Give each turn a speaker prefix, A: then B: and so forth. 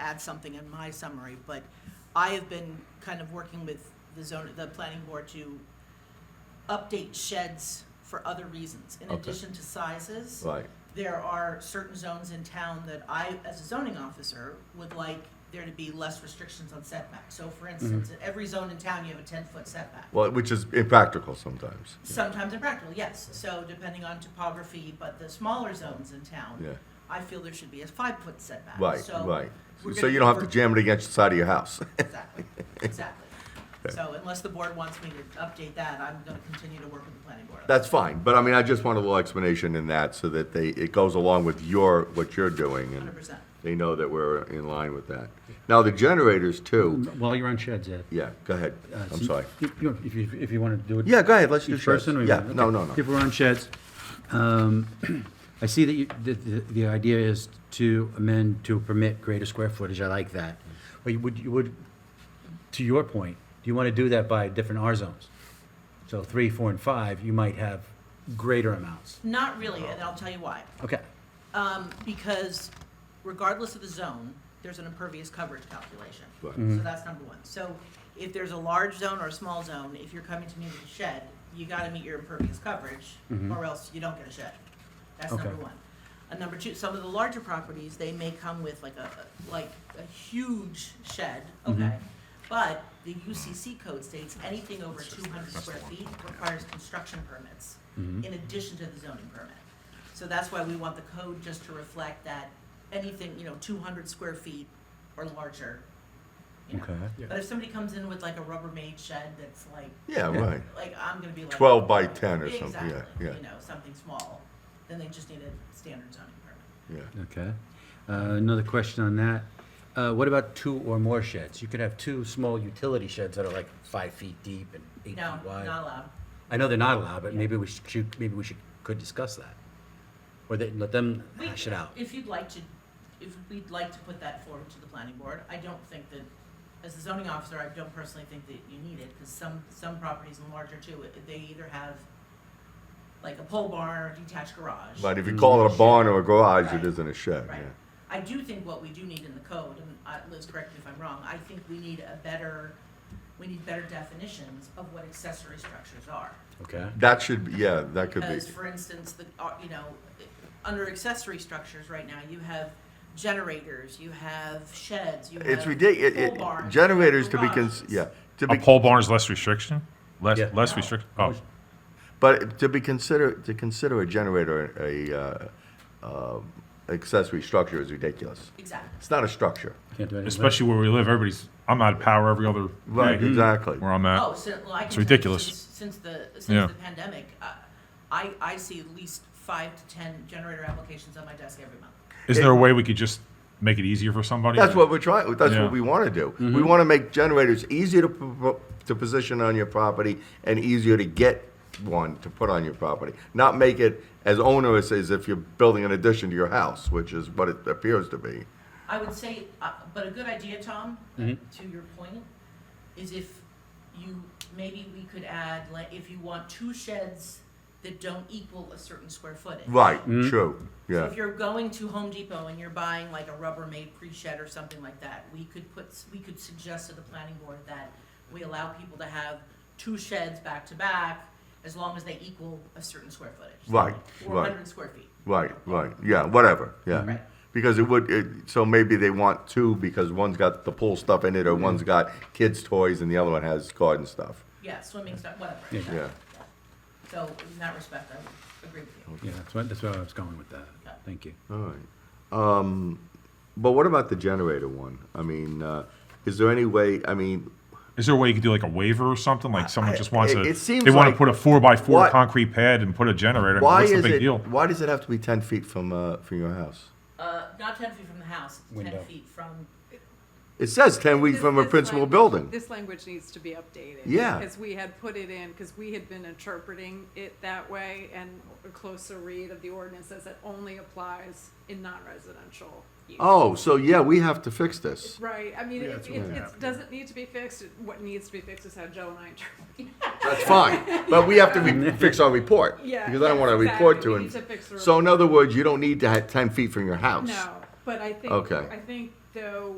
A: add something in my summary, but I have been kind of working with the zone, the planning board to update sheds for other reasons. In
B: Okay.
A: addition to sizes,
B: Right,
A: there are certain zones in town that I, as a zoning officer, would like there to be less restrictions on setbacks. So
B: Mm-hmm.
A: for instance, in every zone in town, you have a ten-foot setback.
B: well, which is impractical sometimes.
A: Sometimes impractical, yes. So depending on topography, but the smaller zones in town,
B: Yeah.
A: I feel there should be a five-foot setback.
B: Right,
A: So
B: right.
A: we're
B: So
A: gonna
B: you don't have to
A: work-
B: jam it against the side of your house.
A: Exactly, exactly. So unless the board wants me to update that, I'm gonna continue to work with the planning board. on that.
B: That's fine, but I mean, I just want a little explanation in that so that they, it goes along with your, what you're doing and
A: 100%.
B: they know that we're in line with that. Now, the generators too,
C: While you're on sheds, Ed.
B: yeah, go ahead,
C: uh,
B: I'm
C: so
B: sorry.
C: you- you- If you, if you want to do it.
B: Yeah, go ahead, let's do
C: each
B: sheds.
C: person, or you
B: Yeah,
C: want-
B: no,
C: okay.
B: no, no.
C: If we're on sheds, um, I see that you, the, the, the idea is to amend to permit greater square footage, I like that. But you would, you would, to your point, you want to do that by different R zones. So three, four, and five, you might have greater amounts.
A: Not really, and I'll tell you why.
C: Okay,
A: Um, because regardless of the zone, there's an impervious coverage calculation.
B: Right.
C: Mm.
A: So that's number one. So if there's a large zone or a small zone, if you're coming to me with a shed, you gotta meet your impervious coverage, or else you don't get a shed. That's
C: Okay.
A: number one. And number two, some of the larger properties, they may come with like a, like a huge shed, okay? But the UCC code states anything over two hundred square feet requires construction permits in addition to the zoning permit. So that's why we want the code just to reflect that anything, you know, two hundred square feet or larger. you know.
C: okay.
A: But if somebody comes in with like a Rubbermaid shed that's like,
B: Yeah,
C: Yeah.
B: right.
A: like, I'm gonna be like.
B: 12 by 10 or something, yeah,
A: Exactly,
B: yeah.
A: you know, something small, then they just need a standard zoning permit.
B: Yeah.
C: Okay. Uh, Another question on that. Uh, What about two or more sheds? You could have two small utility sheds that are like five feet deep and eight feet
A: No,
C: wide.
A: not allowed.
C: I know they're not allowed, but maybe we should- should, maybe we should, could discuss that. Or they, let them
A: We-
C: hash it out.
A: If you'd like to, if we'd like to put that forward to the planning board, I don't think that, as a zoning officer, I don't personally think that you need it, because some, some properties in larger too, it- they either have like a pole barn or detached garage.
B: But if
C: Mm.
B: you call it a barn or a garage,
A: Right.
B: it isn't a shed,
A: Right.
B: yeah.
A: I do think what we do need in the code, and uh, Liz, correct me if I'm wrong, I think we need a better, we need better definitions of what accessory structures are.
C: Okay.
B: That should, be yeah, that could be,
A: Because, for instance, the, uh, you know, under accessory structures right now, you have generators, you have sheds, you have.
B: it's ridiculous,
A: pole barns, you have
B: generators to be, cons-
A: garages.
B: yeah, to
D: A
B: be
D: pole barn is less restriction? Less,
C: Yeah.
D: less
A: No.
D: restriction? Oh,
B: But to be consider, to consider a generator a uh, uh, accessory structure is ridiculous.
A: Exactly.
B: It's not a structure.
C: Can't do anything.
D: especially where we live, everybody's, I'm out of power every other
B: Right,
D: day
B: exactly.
D: where I'm
A: Oh,
D: at.
A: so, well, I can
D: It's
A: tell you
D: ridiculous.
A: since- Since the,
D: Yeah.
A: since the pandemic, uh, I, I see at least five to ten generator applications on my desk every month.
D: Is there a way we could just make it easier for somebody?
B: That's what we're trying, that's
D: Yeah. Mm-hmm.
B: what we want to do. We want to make generators easier to, pro- to position on your property and easier to get one to put on your property. Not make it as onerous as if you're building an addition to your house, which is what it appears to be.
A: I would say, uh, but a good idea, Tom,
B: Mm-hmm.
A: to your point, is if you, maybe we could add, like, if you want two sheds that don't equal a certain square footage.
B: Right,
D: Mm-hmm.
B: true,
A: So
B: yeah.
A: if you're going to Home Depot and you're buying like a Rubbermaid pre-shed or something like that, we could put, we could suggest to the planning board that we allow people to have two sheds back to back, as long as they equal a certain square footage.
B: Right,
A: Four
B: right.
A: hundred square feet.
B: Right, right, yeah, whatever, yeah.
A: Right.
B: Because it would, it, so maybe they want two because one's got the pool stuff in it or one's got kids' toys and the other one has garden stuff.
A: Yeah, swimming stuff, whatever.
C: Yeah.
B: Yeah.
A: So in that respect, I would agree with you.
C: Yeah, that's what, that's where I was going with that.
A: Yeah.
C: Thank you.
B: All right. Um, but what about the generator one? I mean, uh, is there any way, I mean,
D: Is there a way you could do like a waiver or something? Like someone just wants
B: it-
D: to,
B: it seems
D: they want
B: like-
D: to put a four by four
B: Why-
D: concrete pad and put a generator.
B: why
D: What's the
B: is
D: big
B: it,
D: deal?
B: why does it have to be ten feet from, uh, from your house?
A: Uh, not ten feet from the house, it's ten
C: Window.
A: feet from,
B: It says ten feet
E: This-
B: from a
E: this
B: principal
E: language-
B: building.
E: This language needs to be updated.
B: Yeah.
E: Because we had put it in, because we had been interpreting it that way, and a closer read of the ordinance says it only applies in non-residential use.
B: Oh, so yeah, we have to fix this.
E: Right, I mean, it,
F: that's
E: it,
F: what we have
E: it
F: to
E: doesn't need to be fixed, what needs to be fixed is how Joe and I interpret.
B: That's fine, but we have to re- fix our report.
E: Yeah,
B: Because I don't want to
E: exactly.
B: report to
E: We
B: it.
E: need to fix the
B: So in
E: report.
B: other words, you don't need to have ten feet from your house.
E: No, but I think,
B: Okay.
E: I think though,